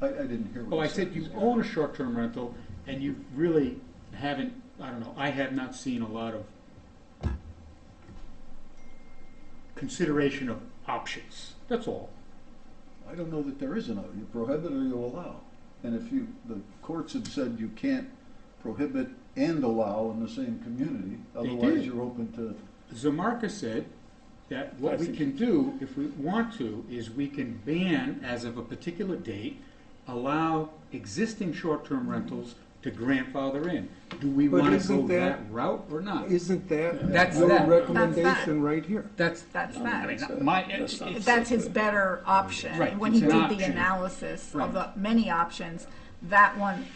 I, I didn't hear what Oh, you I said. said you own a short-term rental, and you really haven't, I don't know, I have not seen a lot of consideration of options, that's all. I don't know that there is an, o- you prohibit or you allow. And if you, the courts have said you can't prohibit and allow in the same community, did. otherwise you're open to, Zamarka said that what we can do, if we want to, is we can ban, as of a particular date, allow existing short-term rentals to grandfather in. Do we But wanna isn't go that that- route or not? Isn't that That's your that. That's that. recommendation right here? That's, That's I mean, that. my, That's not- it's- That's his better option. Right, When he it's an did the option. analysis Right. of the many options, that one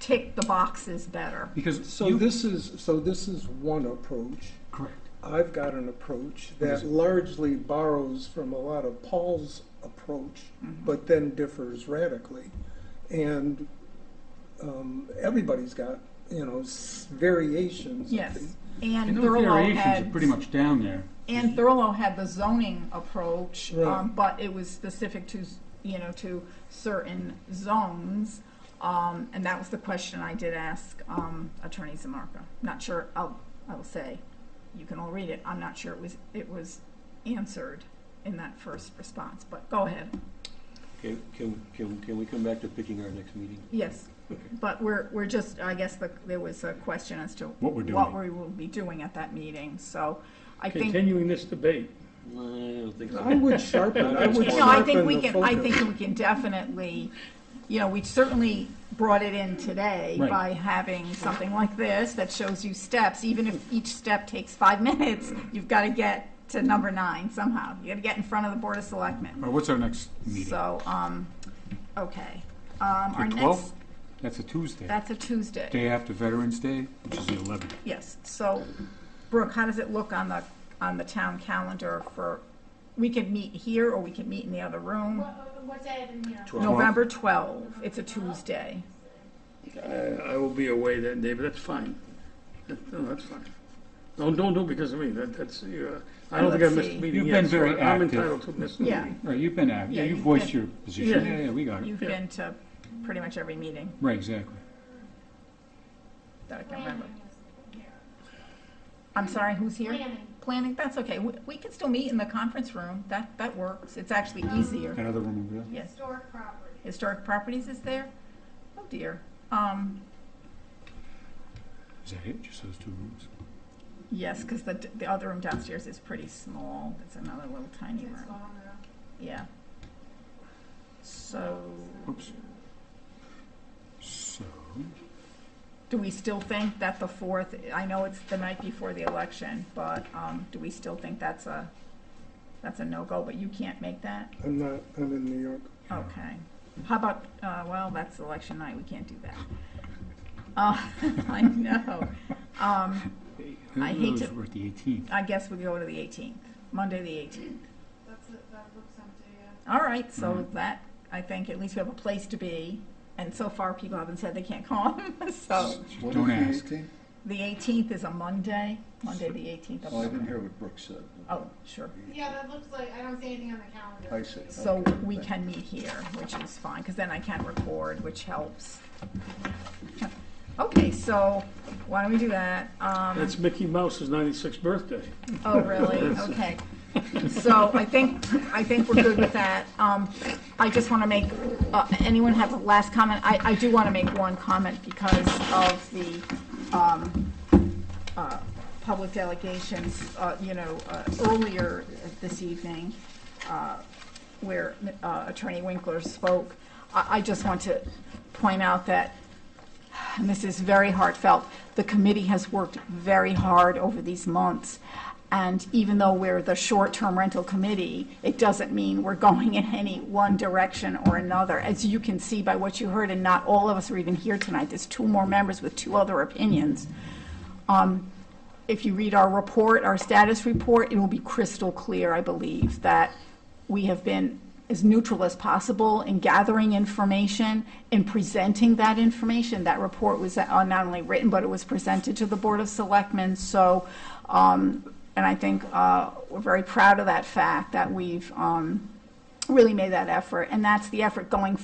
ticked the boxes better. because So you, this is, so this is one approach. correct. I've got an approach is that it? largely borrows from a lot of Paul's approach, but then differs radically. And um, everybody's got, you know, s- variations. of Yes, things. and And those Thurlow variations are had, pretty much down there. Mm-hmm. and Thurlow had the zoning approach, Right. um, but it was specific to, you know, to certain zones. Um, and that was the question I did ask, um, Attorney Zamarka. Not sure, I'll, I will say, you can all read it, I'm not sure it was, it was answered in that first response, but go ahead. Can, can, can can we come back to picking our next meeting? Yes, but we're, we're just, I guess the, there was a question as to What we're what we doing. will be doing at that meeting, so I think. Continuing this debate, I don't think I so. would sharpen, I would No, I think sharpen we the can, I focus. think we can definitely, you know, we certainly brought it in today Right. by having something like this that shows you steps, even if each step takes five minutes, you've got to get to number nine somehow. You got to get in front of the Board of Selectmen. Or what's our next meeting? So, um, okay. Um, our The next, twelfth? That's a Tuesday. that's a Tuesday. Day after Veterans Day, which is the eleventh. Yes, so Brooke, how does it look on the, on the town calendar for, we could meet here or we could meet in the other room? What, what day of the year? November 12, it's a Tuesday. I, I will be away that day, but that's fine. That- No, that's fine. Don't, don't do it because of me, that, that's, uh, I don't think I Let's missed a see. meeting You've yet, been so very I'm active. entitled to miss a Yeah. meeting. Right, you've been, out. yeah, Yeah, you you've voiced been- your position. Yeah. Yeah, yeah, we got it. You've been to pretty much every meeting Right, exactly. that I can remember. Planning is here. I'm sorry, who's here? Planning. Planning, that's okay. We we can still meet in the conference room. That, that works. It's actually easier. That other room over there? Yes. Historic property. Historic Properties is there? Oh dear. Um, Is that it? Just those two rooms? yes, because the, the other room downstairs is pretty small. It's another little tiny It's room. long enough. Yeah. So, Oops. So, do we still think that the fourth, I know it's the night before the election, but, um, do we still think that's a, that's a no-go, but you can't make that? I'm not, I'm in New York. Okay. How about, uh, well, that's election night, we can't do that. Uh, I know. Um, I hate those to- were at the eighteenth. I guess we go to the eighteenth, Monday the eighteenth. That's, it. that looks empty, yeah. All right, so that, I think at least we have a place to be, and so far people haven't said they can't come, so. what Don't is ask. the 18th? The eighteenth is a Monday, Monday the eighteenth of Oh, I didn't November. hear what Brooks said. Oh, sure. Yeah, that looks like, I don't see anything on the I calendar. see. So we can meet here, which is fine, because then I can record, which helps. Okay, so why don't we do that? Um, That's Mickey Mouse's ninety-sixth birthday. Oh, really? Okay. So I think, I think we're good with that. Um, I just want to make, uh, anyone have a last comment? I, I do want to make one comment because of the, um, uh, public delegations, uh, you know, uh, earlier this evening, uh, where uh, Attorney Winkler spoke. I, I just want to point out that and this is very heartfelt, the committee has worked very hard over these months. And even though we're the short-term rental committee, it doesn't mean we're going in any one direction or another. As you can see by what you heard, and not all of us are even here tonight, there's two more members with two other opinions. Um, If you read our report, our status report, it will be crystal clear, I believe, that we have been as neutral as possible in gathering information, in presenting that information. That report was uh, not only written, but it was presented to the Board of Selectmen, so, um, and I think uh, we're very proud of that fact, that we've um, really made that effort, and that's the effort going